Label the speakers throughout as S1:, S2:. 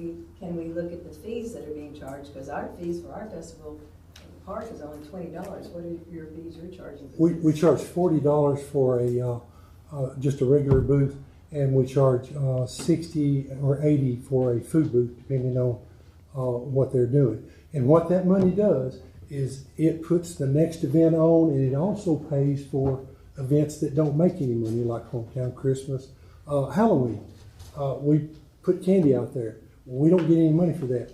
S1: and we look at the fees that are being charged, because our fees for our festival in the park is only twenty dollars. What are your fees you're charging?
S2: We, we charge forty dollars for a, uh, uh, just a regular booth, and we charge, uh, sixty or eighty for a food booth, depending on, uh, what they're doing. And what that money does is it puts the next event on, and it also pays for events that don't make any money, like hometown Christmas, uh, Halloween. Uh, we put candy out there. We don't get any money for that.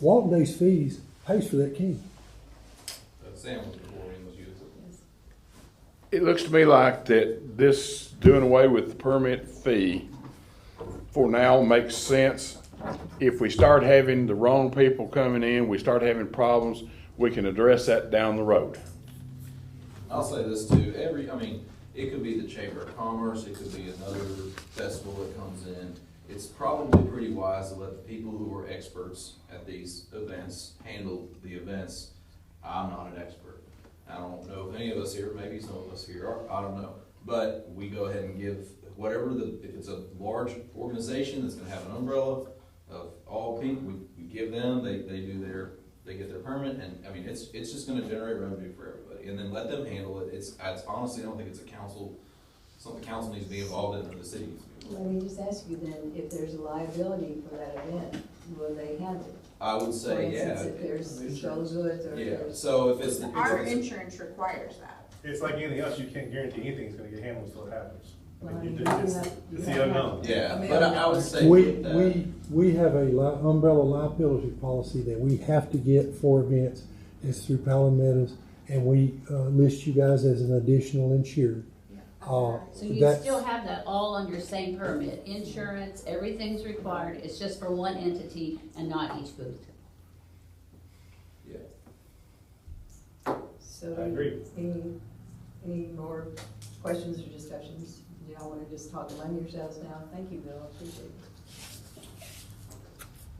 S2: Walton Day's fees pays for that candy.
S3: That Sam was before he was used.
S1: Yes.
S4: It looks to me like that this doing away with the permit fee for now makes sense. If we start having the wrong people coming in, we start having problems, we can address that down the road.
S3: I'll say this too, every, I mean, it could be the Chamber of Commerce, it could be another festival that comes in. It's probably pretty wise to let the people who are experts at these events handle the events. I'm not an expert. I don't know if any of us here, maybe some of us here are, I don't know. But we go ahead and give whatever the, if it's a large organization that's gonna have an umbrella of all people, we, we give them, they, they do their, they get their permit, and, I mean, it's, it's just gonna generate revenue for everybody, and then let them handle it, it's, I honestly don't think it's a council, something council needs to be involved in, or the city needs to be
S1: Let
S3: involved.
S1: me just ask you then, if there's a liability for that event, will they handle it?
S3: I would
S1: For
S3: say, yeah.
S1: instance, if there's stolen goods or if
S3: Yeah,
S1: there's.
S3: so if it's, if
S5: Our
S3: it's,
S5: insurance requires that.
S6: It's like anything else, you can't guarantee anything's gonna get handled until it happens. I mean,
S1: Well,
S6: you
S1: you
S6: do-
S1: have-
S6: It's
S1: you
S6: it's
S1: have-
S6: the unknown.
S3: yeah,
S1: I mean,
S3: but I I would say
S2: We,
S3: with that,
S2: we, we have a li- umbrella liability policy that we have to get for events. It's through Palomar Meadows, and we, uh, list you guys as an additional insured. Uh,
S7: So you
S2: that's-
S7: still have that all on your same permit, insurance, everything's required, it's just for one entity and not each booth.
S3: yeah.
S1: So
S6: I agree.
S1: Any, any more questions or discussions? Do y'all wanna just talk among yourselves now? Thank you, Bill, I appreciate it.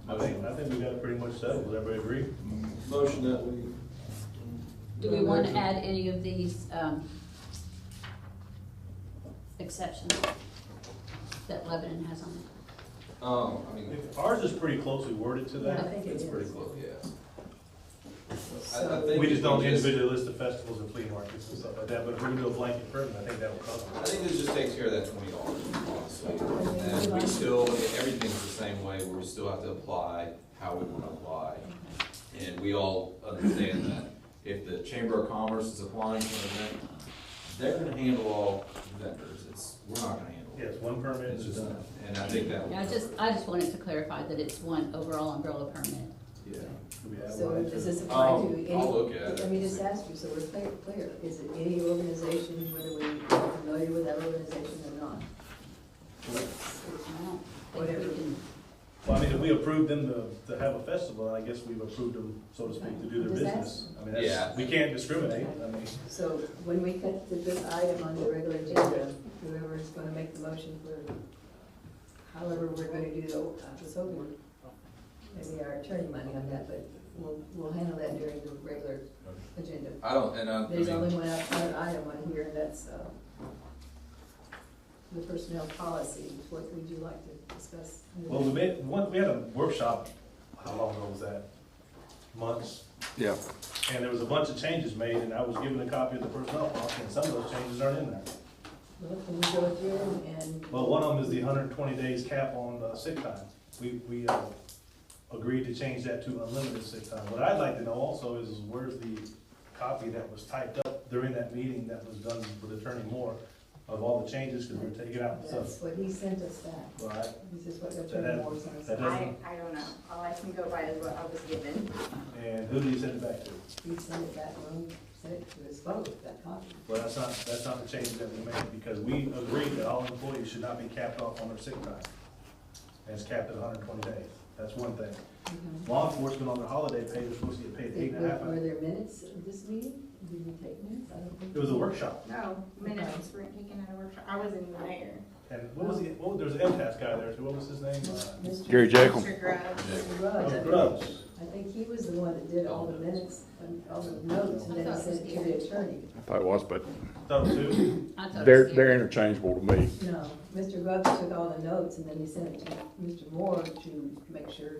S6: I think, I think we got it pretty much settled, does everybody agree?
S3: Motion that we.
S7: Do we want to add any of these, um, exceptions that Lebanon has on it?
S3: Um, I mean,
S6: If Ours is pretty closely worded to
S1: I
S6: that.
S1: think it
S3: it's
S1: is.
S3: pretty close, yeah. I, I
S1: So-
S3: think.
S6: We just don't
S3: if we
S6: individually list the festivals and flea markets and stuff like that, but if we can do a blanket permit, I think that'll cover
S3: I
S6: it.
S3: think this just takes care of that twenty dollars, honestly. And we still, everything's the same way, we still have to apply how we want to apply. And we all understand that if the Chamber of Commerce is applying for an event, they're gonna handle all vendors, it's, we're not gonna handle it.
S6: Yes, one permit
S3: It's
S6: is
S3: just,
S6: done.
S3: and I think that.
S7: Yeah, I just, I just wanted to clarify that it's one overall umbrella permit.
S3: Yeah.
S1: So does this apply
S3: I'll,
S1: to any?
S3: I'll look at
S1: Let me
S3: it.
S1: just ask you, so we're clear, clear, is it any organization, whether we're familiar with that organization or not?
S7: I don't think
S1: Whatever.
S7: we can-
S6: Well, I mean, if we approve them to, to have a festival, I guess we've approved them, so to speak, to do their
S1: Does that-
S6: business. I mean, that's,
S3: Yeah.
S6: we can't discriminate, I mean,
S1: So when we cut to this item on the regular agenda, whoever's gonna make the motion for however we're gonna do the, I was hoping, maybe our attorney might on that, but we'll, we'll handle that during the regular agenda.
S3: I don't, and I, I
S1: There's
S3: mean,
S1: only one outside item on here, and that's, uh, the personnel policy, what would you like to discuss?
S6: well, we made, one, we had a workshop, how long ago was that? Months?
S4: Yeah.
S6: And there was a bunch of changes made, and I was given a copy of the personnel policy, and some of those changes aren't in there.
S1: Well, can we go through and?
S6: Well, one of them is the hundred and twenty days cap on uh, sick time. We, we, uh, agreed to change that to unlimited sick time. What I'd like to know also is where's the copy that was typed up during that meeting that was done with Attorney Moore of all the changes, because we're taking out stuff.
S1: That's what he sent us back.
S6: Well, I-
S1: This is what the
S6: That-
S1: attorney Moore sent us.
S6: that-
S1: back.
S5: I, I don't know. All I can go by is what I was given.
S6: And who do you send it back to?
S1: He sent it back when we sent it to his vote, that copy.
S6: Well, that's not, that's not the change that we made, because we agreed that all employees should not be capped off on their sick time. And it's capped at hundred and twenty days. That's one thing. Law enforcement on their holiday pay is supposed to get paid eight
S1: Did-
S6: and a half
S1: Were
S6: hours.
S1: there minutes of this meeting? Did we take minutes? I don't think.
S6: It was a workshop.
S5: No, minutes weren't taken out of workshop. I wasn't even there.
S6: And what was the, what, there was an MTS guy there, too. what was his name? Uh,
S1: Mr.
S4: Gary Jekyll.
S5: Mr. Grubbs.
S1: Mr.
S6: Oh,
S1: Rudd,
S6: Grubbs.
S1: I think he was the one that did all the minutes, and all the notes, and then he sent it to the attorney.
S4: I thought it was, but
S6: Those two.
S7: I thought it
S4: they're,
S7: was
S4: they're interchangeable to me.
S1: No, Mr. Grubbs took all the notes, and then he sent it to Mr. Moore to make sure